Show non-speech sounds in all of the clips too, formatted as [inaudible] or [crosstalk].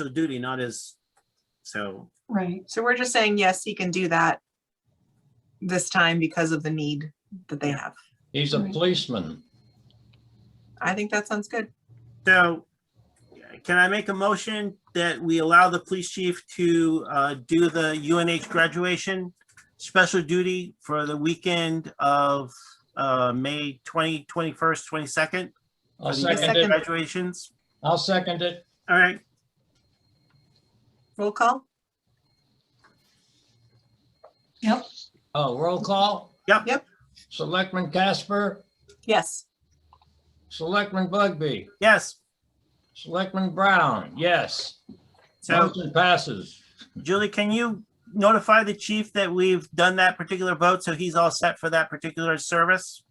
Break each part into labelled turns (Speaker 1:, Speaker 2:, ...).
Speaker 1: actual duty, not as, so,
Speaker 2: Right,
Speaker 3: So we're just saying, yes, he can do that this time because of the need that they have.
Speaker 4: He's a
Speaker 2: Right.
Speaker 4: policeman.
Speaker 3: I think that sounds good.
Speaker 1: so can I make a motion that we allow the police chief to uh, do the UNH graduation special duty for the weekend of uh, May 20, 21st, 22nd?
Speaker 4: I'll
Speaker 1: for the
Speaker 4: second
Speaker 1: UNH
Speaker 4: it.
Speaker 3: Second.
Speaker 1: Graduations,
Speaker 4: I'll second it.
Speaker 1: all right,
Speaker 3: Roll call?
Speaker 2: yep,
Speaker 4: Oh, roll call?
Speaker 1: Yep.
Speaker 3: Yep.
Speaker 4: Selectman Casper,
Speaker 3: Yes.
Speaker 4: Selectman Bugby,
Speaker 1: yes,
Speaker 4: Selectman Brown, yes.
Speaker 1: so
Speaker 4: Motion passes.
Speaker 1: Julie, can you notify the chief that we've done that particular vote, so he's all set for that particular service?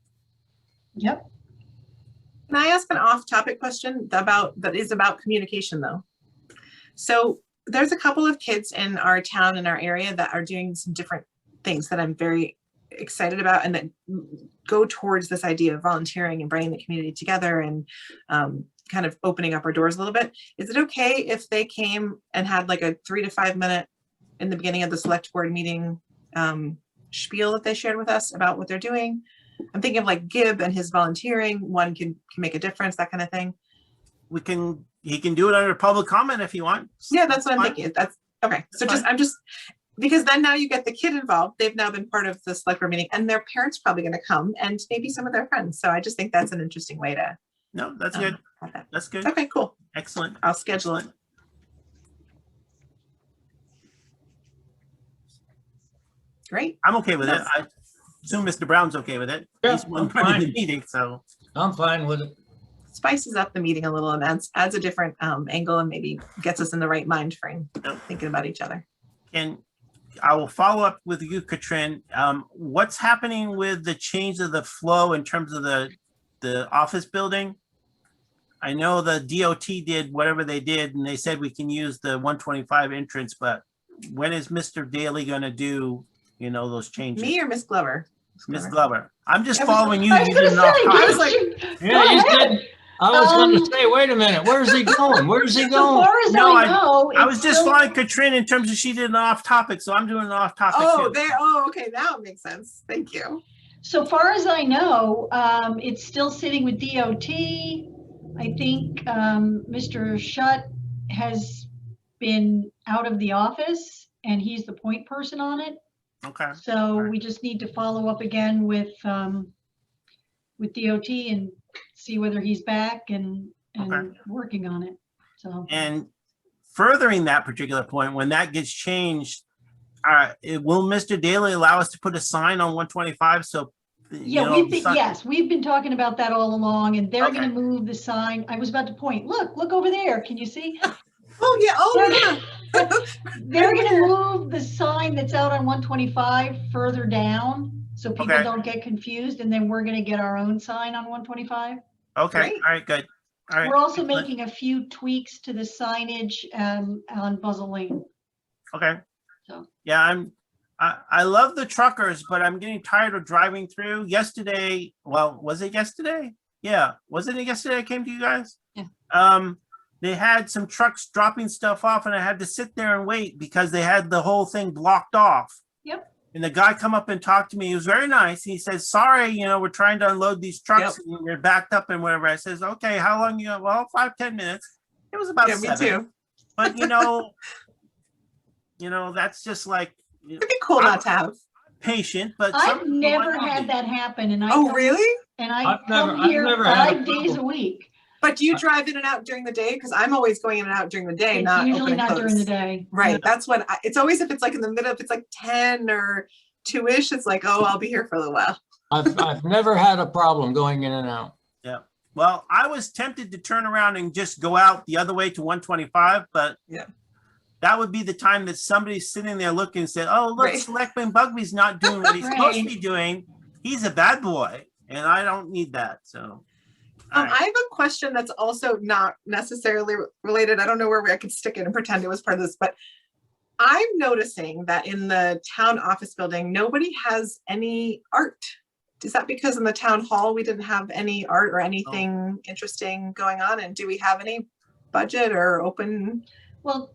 Speaker 2: yep.
Speaker 3: Can I ask an off-topic question about, that is about communication though? So there's a couple of kids in our town, in our area that are doing some different things that I'm very excited about and that go towards this idea of volunteering and bringing the community together and um, kind of opening up our doors a little bit. Is it okay if they came and had like a three to five minute in the beginning of the select board meeting um, spiel that they shared with us about what they're doing? I'm thinking of like Gibb and his volunteering, one can, can make a difference, that kind of thing.
Speaker 1: We can, he can do it under public comment if you want.
Speaker 3: Yeah, that's what I'm
Speaker 1: Fine.
Speaker 3: thinking. That's, okay, so
Speaker 1: That's
Speaker 3: just, I'm just, because then now you get the kid involved. They've now been part of the select board meeting and their parents probably gonna come and maybe some of their friends. So I just think that's an interesting way to.
Speaker 1: No, that's
Speaker 3: um,
Speaker 1: good,
Speaker 3: have that.
Speaker 1: that's good,
Speaker 3: Okay, cool.
Speaker 1: excellent,
Speaker 3: I'll schedule it.
Speaker 1: excellent.
Speaker 3: Great.
Speaker 1: I'm okay with it. I assume Mr. Brown's okay with it.
Speaker 4: Yeah,
Speaker 1: He's one
Speaker 4: I'm
Speaker 1: part of the
Speaker 4: fine.
Speaker 1: meeting, so,
Speaker 4: I'm fine with it.
Speaker 3: Spices up the meeting a little and adds, adds a different um, angle and maybe gets us in the right mind frame,
Speaker 1: Yep.
Speaker 3: thinking about each other.
Speaker 1: and I will follow up with you, Katrin. Um, what's happening with the change of the flow in terms of the, the office building? I know the DOT did whatever they did, and they said we can use the one twenty-five entrance, but when is Mr. Daly gonna do, you know, those changes?
Speaker 3: Me or Miss Glover?
Speaker 1: Ms. Glover, I'm just
Speaker 3: I was-
Speaker 1: following you.
Speaker 2: I was
Speaker 1: You
Speaker 2: gonna
Speaker 1: didn't off
Speaker 2: say,
Speaker 1: topic.
Speaker 3: I was like,
Speaker 4: Yeah, he's
Speaker 2: ahead.
Speaker 4: good. I was
Speaker 2: Um,
Speaker 4: gonna say, wait a minute, where's he going?
Speaker 2: [laughs]
Speaker 4: Where's he
Speaker 2: As
Speaker 4: going?
Speaker 2: far as
Speaker 1: No,
Speaker 2: I
Speaker 1: I-
Speaker 2: know.
Speaker 1: I
Speaker 2: it's
Speaker 1: was just
Speaker 2: still-
Speaker 1: following Katrin in terms of she did an off topic, so I'm doing an off topic
Speaker 3: Oh,
Speaker 1: too.
Speaker 3: there, oh, okay, now it makes sense. Thank you.
Speaker 2: So far as I know, um, it's still sitting with DOT. I think, um, Mr. Shutt has been out of the office and he's the point person on it.
Speaker 1: Okay.
Speaker 2: So
Speaker 1: Alright.
Speaker 2: we just need to follow up again with, um, with DOT and see whether he's back and, and
Speaker 1: Okay.
Speaker 2: working on it. So,
Speaker 1: And furthering that particular point, when that gets changed, uh, it, will Mr. Daly allow us to put a sign on one twenty-five? So. you
Speaker 2: yeah,
Speaker 1: know,
Speaker 2: we've been,
Speaker 1: sign-
Speaker 2: yes, we've been talking about that all along and they're gonna
Speaker 1: Okay.
Speaker 2: move the sign. I was about to point, look, look over there. Can
Speaker 1: [laughs]
Speaker 2: you see?
Speaker 3: Oh, yeah, oh, yeah.
Speaker 2: They're gonna move the sign that's out on one twenty-five further down, so people
Speaker 1: Okay.
Speaker 2: don't get confused, and then we're gonna get our own sign on one twenty-five.
Speaker 1: Okay,
Speaker 3: Great.
Speaker 1: all right, good. All
Speaker 2: We're
Speaker 1: right,
Speaker 2: also
Speaker 1: excellent.
Speaker 2: making a few tweaks to the signage, um, on Buzzell Lane.
Speaker 1: okay.
Speaker 2: So.
Speaker 1: Yeah, I'm, I, I love the truckers, but I'm getting tired of driving through. Yesterday, well, was it yesterday? Yeah, wasn't it yesterday I came to you guys?
Speaker 5: Yeah.
Speaker 1: Um, they had some trucks dropping stuff off and I had to sit there and wait because they had the whole thing blocked off.
Speaker 2: Yep.
Speaker 1: And the guy come up and talked to me. He was very nice. He says, sorry, you know, we're trying to unload these trucks and we're backed up and whatever. I says, okay, how long you, well, five, ten minutes. It was about
Speaker 3: Yeah, me
Speaker 1: seven,
Speaker 3: too.
Speaker 1: but you know, you know, that's just like you know,
Speaker 3: It'd be cool not to have.
Speaker 1: patient, but. some
Speaker 2: I've
Speaker 1: people
Speaker 2: never
Speaker 1: are not.
Speaker 2: had that happen, and I.
Speaker 3: Oh,
Speaker 2: come-
Speaker 3: really?
Speaker 2: And
Speaker 4: I've
Speaker 2: I
Speaker 4: never-
Speaker 2: come
Speaker 4: I've
Speaker 2: here
Speaker 4: never had a
Speaker 2: five days a
Speaker 4: problem.
Speaker 2: week.
Speaker 3: But do you drive in and out during the day? Because I'm always going in and out during the day,
Speaker 2: It's
Speaker 3: not
Speaker 2: usually
Speaker 3: open and
Speaker 2: not during the
Speaker 3: close.
Speaker 2: day.
Speaker 3: Right, that's when, I- it's always if it's like in the middle, if it's like ten or two-ish, it's like, oh, I'll be here for a little while.
Speaker 4: I've, I've never had a problem going in and out.
Speaker 1: Well, I was tempted to turn around and just go out the other way to one twenty-five, but.
Speaker 3: Yeah.
Speaker 1: That would be the time that somebody's sitting there looking and said, oh, look,
Speaker 3: Right.
Speaker 1: Selectman Bugby's not doing what
Speaker 2: [laughs]
Speaker 1: he's supposed to
Speaker 2: Right.
Speaker 1: be doing. He's a bad boy and I don't need that, so.
Speaker 3: Um,
Speaker 1: alright.
Speaker 3: I have a question that's also not necessarily re- related. I don't know where we- I could stick it and pretend it was part of this, but I'm noticing that in the town office building, nobody has any art. Is that because in the town hall, we didn't have any art or anything interesting going on? And do we have any budget or open
Speaker 2: Well,